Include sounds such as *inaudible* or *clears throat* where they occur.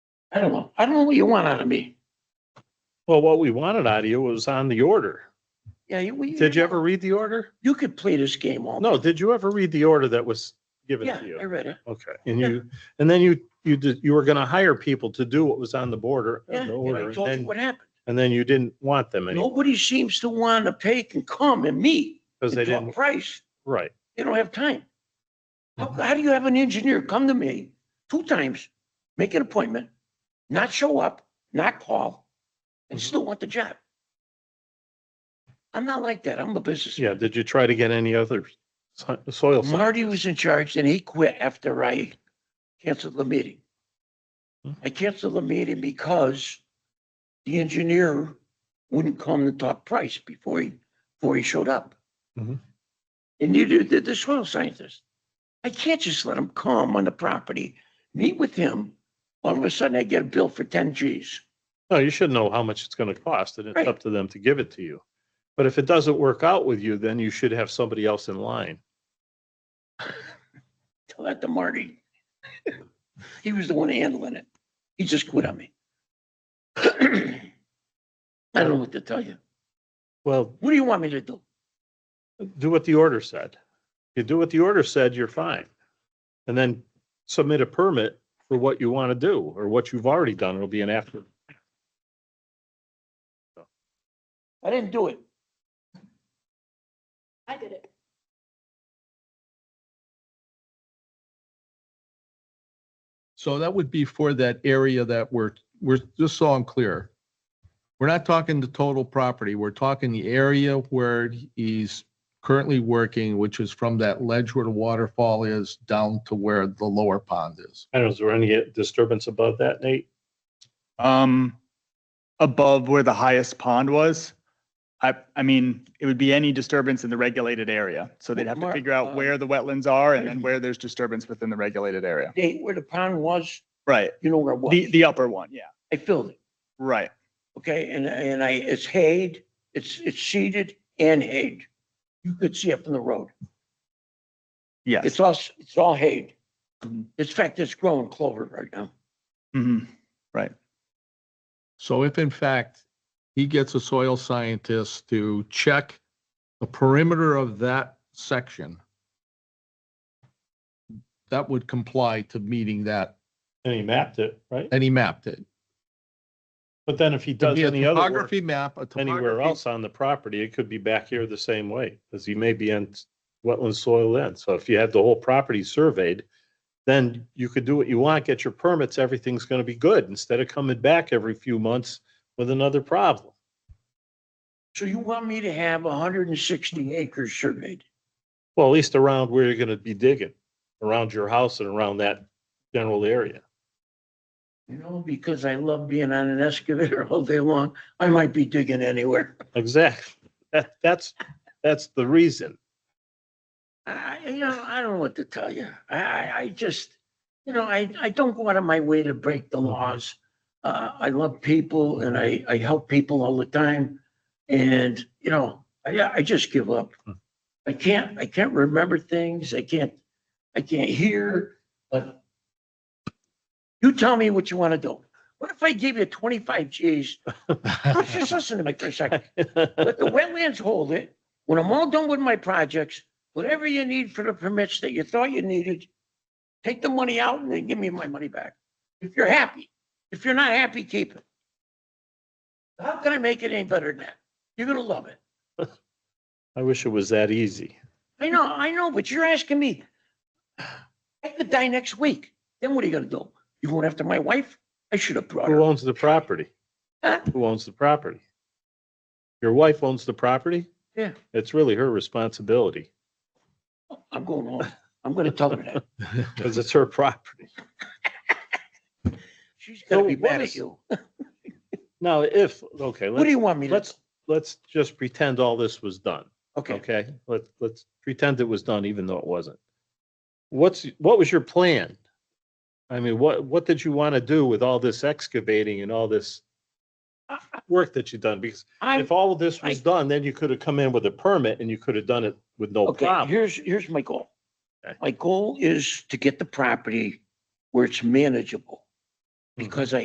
I don't know. I don't know what you want out of me. Well, what we wanted out of you was on the order. Yeah, you. we- Did you ever read the order? You could play this game all. No, did you ever read the order that was given Yeah, to I you? read it. Okay, and you, and then you, you did, you were gonna hire people to do what was on the border, uh, Yeah, the and order, I and told you then, what happened. and then you didn't want them anymore Nobody seems to want to pay and come and meet. because they and talk didn't, Price, right. they don't have time. How, Uh-huh. how do you have an engineer come to me two times, make an appointment, not show up, not call, and Mhm. still want the job? I'm not like that. I'm a businessman. Yeah, did you try to get any other so- soil? samples? Marty was in charge and he quit after I canceled the meeting. Hmm. I canceled the meeting because the engineer wouldn't come to talk price before he, before he showed up. Mhm. And neither did the soil scientist. I can't just let him come on the property, meet with him. All of a sudden I get a bill for ten Gs. No, you should know how much it's gonna cost and it's Right. up to them to give it to you. But if it doesn't work out with you, then you should have somebody else in line. Tell that to Marty. *laughs* He was the one handling it. He just quit on me. *clears throat* I don't know what to tell you. Well, What do you want me to do? do what the order said. You do what the order said, you're fine. And then submit a permit for what you want to do or what you've already done. It'll be an after. I didn't do it. I did it. So that would be for that area that we're, we're, just so I'm clear. We're not talking the total property. We're talking the area where he's currently working, which is from that ledge where the waterfall is down to where the lower pond is. I don't know, is there any disturbance above that, Nate? um, above where the highest pond was. I, I mean, it would be any disturbance in the regulated area. So they'd have to Mar- figure out uh, where the wetlands are and then where there's disturbance within the regulated area. Date where the pond was, Right. you know where it was. The, the upper one. Yeah. I filled it, Right. okay? And, and I, it's hayed, it's, it's seeded and hayed. You could see it from the road. Yes. It's all, it's all hayed. Mhm. In fact, it's growing clover right now. Mhm. So if in fact he gets a soil scientist to check the perimeter of that section, that would comply to meeting that, And he mapped it, right? and he mapped it. But then if he Could does be a any other work topography map, a anywhere topography *laughs* else on the property, it could be back here the same way. Cause he may be in wetland soil then. So if you had the whole property surveyed, then you could do what you want, get your permits, everything's gonna be good instead of coming back every few months with another problem. So you want me to have hundred and sixty acres surveyed? Well, at least around where you're gonna be digging, around your house and around that general area. You know, because I love being on an excavator *laughs* all day long, I might be digging anywhere. Exactly. That, that's, that's the reason. *laughs* I, I- you know, I don't know what to tell you. I, I, I just, you know, I, I don't go out of my way to break the laws. Uh, I love people and I, I help people all the time. And, you know, I, I just give up. I can't, I can't remember things. I can't, I can't hear, but you tell me what you want to do. What if I give you twenty-five Gs? *laughs* Let's Just listen to me for a second. Let the wetlands hold it. When I'm all done with my projects, whatever you need for the permits that you thought you needed, take the money out and then give me my money back. If you're happy. If you're not happy, keep it. How can I make it any better than that? You're gonna love it. I wish it was that easy. I know, I know, but you're asking me. *sighs* I could die next week. Then what are you gonna do? You going after my wife? I should have brought Who her. owns the property? Huh? Who owns the property? Your wife owns the property? Yeah. It's really her responsibility I'm going home. I'm gonna tell her *laughs* that. because it's her property. She's gonna So be what mad at is- you. Now, if, okay, What do let's, you want me to? do? let's, let's just pretend all this was done. Okay, Okay, let's, let's pretend it was done even though it wasn't. What's, what was your plan? I mean, what, what did you want to do with all this excavating and all this work that you've done? Because I'm, if all of this was I- done, then you could have come in with a permit and you could have done it with no Okay, problem. here's, here's my goal. Okay. Mm-hmm. My goal is to get the property where it's manageable. Because I